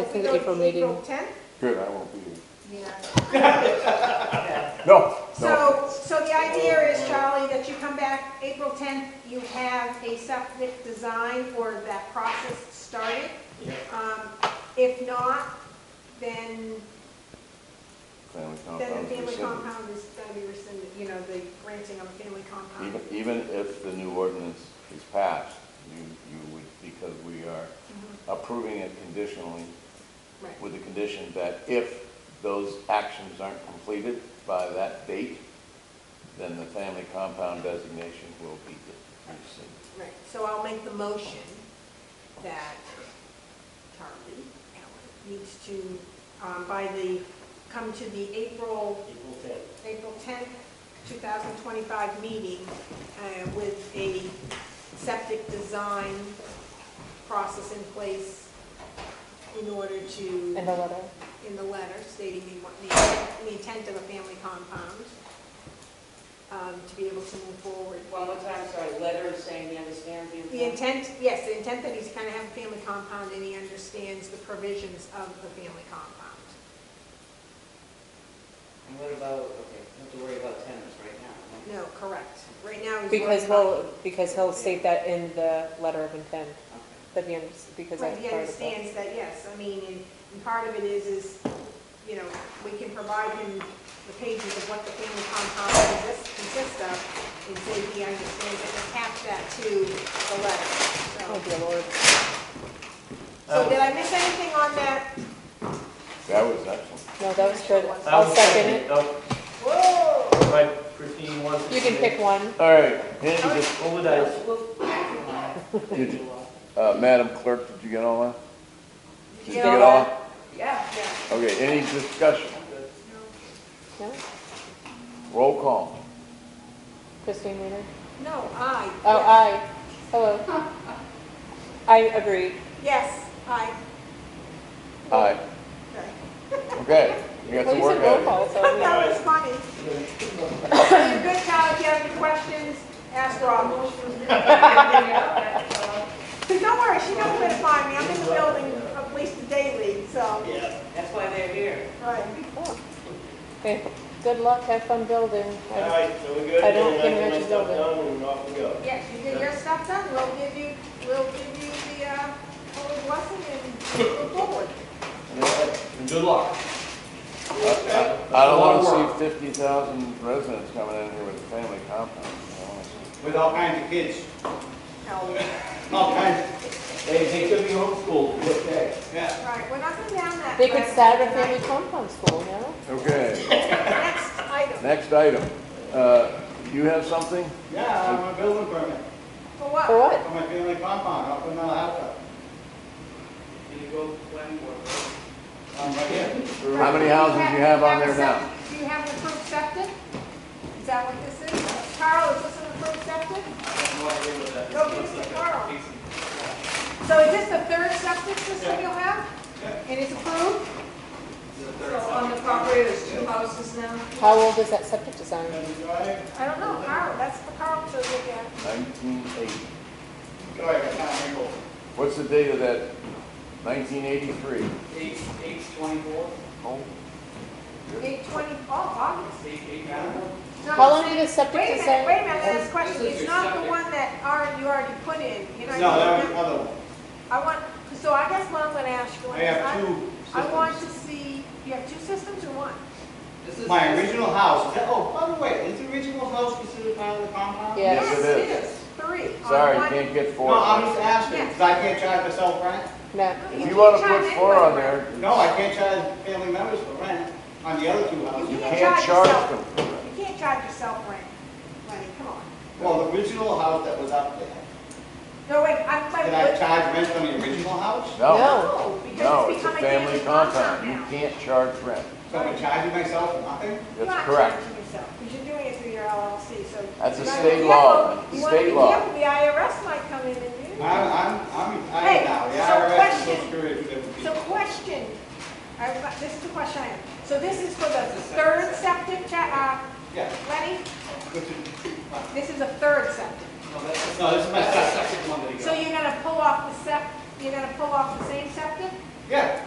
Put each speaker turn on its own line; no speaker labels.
It's in the April meeting.
April 10th?
Good, I won't be here.
Yeah.
No, no.
So, so the idea is, Charlie, that you come back April 10th, you have a septic design or that process started. Um, If not, then,
Family
then the
compound
family
rescinded.
compound is gonna be rescinded, you know, the granting of a family compound.
Even, even if the new ordinance is passed, you, you would, because we are
Mhm,
approving it conditionally
Right.
with the condition that if those actions aren't completed by that date, then the family compound designation will be rescinded.
Right, so I'll make the motion that Charlie Allen needs to, um, by the, come to the April,
April tenth.
April tenth, two thousand twenty-five meeting, uh, with a septic design process in place in order to,
And the letter.
in the letter stating the, what the, the intent of a family compound, um, to be able to move forward.
One more time, sorry, letter saying he understands the
The
intent.
intent, yes, the intent that he's kind of have a family compound and he understands the provisions of the family compound.
And what about, okay, don't have to worry about tenants right now.
No, correct. Right now he's.
Because
working on-
he'll, because he'll state that in the letter of intent,
Okay.
that he understands, because
Right,
that's
he
part of the.
understands that, yes, I mean, and, and part of it is, is, you know, we can provide him the pages of what the family compound consists, consists of, and so he understands and attach that to the letter, so.
Oh, dear Lord.
So did I miss anything on that?
That was excellent.
No, that was good.
I
I'll second it.
Oh,
Whoa!
if I Christine wants to.
You can pick one.
All right, any dis-
What would I,
Well,
Did you- uh, Madam Clerk, did you get all that? Did you
Yeah.
get all?
Yeah.
Yeah,
Okay, any discussion?
No?
Roll call.
Christine Weiner?
no, I.
Oh, aye. Hello. I agree.
Yes, I.
Aye.
Okay.
Okay, you got
Well,
to
you
work
said roll
at it.
call, so. I'm like,
That was funny. You're a good guy. If you have any questions, ask Rob. Because don't worry, she knows where to find me. I'm in the building at least a daily, so.
yeah,
That's why they're here.
Right.
oh. Okay, good luck, have fun building.
all right, so we're good.
I don't
Then
think
can
Rich
let
is
stuff
over.
down And off we go.
Yes, you get your stuff done. We'll give you, we'll give you the, uh, full blessing and move forward.
And good luck.
I don't wanna see fifty thousand residents coming in here with a family compound. I don't wanna see-
With all kinds of kids,
No.
all kinds. They, they could be homeschooled, okay? Yeah.
Right, we're not going down that.
They could
path
start a
tonight.
family compound school, you know?
Okay,
Next item.
next item. Uh, you have something?
Yeah, I have a building permit
For what?
For what?
for my family compound up in Manhattan.
Can you go planning board?
Um, right here.
How many houses you have on there now?
Do you have an approved septic? Is that what this is? Carl, is this an approved septic? Go give it to Carl. So is this the third septic system you'll have? And it's approved?
So on the property, there's two houses now?
How old is that septic design?
Can you drive?
I don't know, Carl, that's for Carl to look at.
Nineteen eighty.
Go ahead, I'm able.
What's the date of that? Nineteen eighty-three. Oh,
Eight, eight twenty-four?
Eight twenty, oh, August.
Eight, eight
No,
How long did the
Wait a
septic
minute,
design?
wait a minute, last question.
This is
It's
your
not the
septic.
one that already, you already put in. You know,
No, that
you-
was another one.
I want, so I guess what I'm gonna ask you.
I
is
have two
I want to
systems.
see, you have two systems or one?
My original house, oh, by the way, is the original house considered part of the compound?
Yeah. Yes,
it is.
Three. on
Sorry,
one-
can't get
No, I'm
four.
just asking, because I can't charge myself rent.
Oh, No.
If you wanna put
can't
four
charge
on there,
No, I can't charge family members for rent on the other two
You
you
houses.
can't charge them.
anyone. You can't charge yourself rent, Lenny, come on.
Well, the original house that was up there,
No, wait, I'm,
did I
but,
charge rent on the original house?
No,
no,
no,
because it's
it's a
become a
family
family compound
compound. You
now.
can't charge rent.
So I'm charging myself nothing?
You're
That's
not
correct.
charging yourself, because you're doing it through your LLC, so.
That's a
you gotta be
state
careful.
law, man.
You wanna be
State law.
careful, The IRS might come in and do.
I'm, I'm, I'm
Hey,
retired now, the
so
IRS is so
question.
screwed with different
So
people.
question, I've got- this is the question I have. So this is for the third septic, cha-
Yeah,
uh, Lenny?
which is,
This is a third septic.
no, this is my second.
So you're gonna pull off the sep, you're gonna pull off the same septic?
Yeah,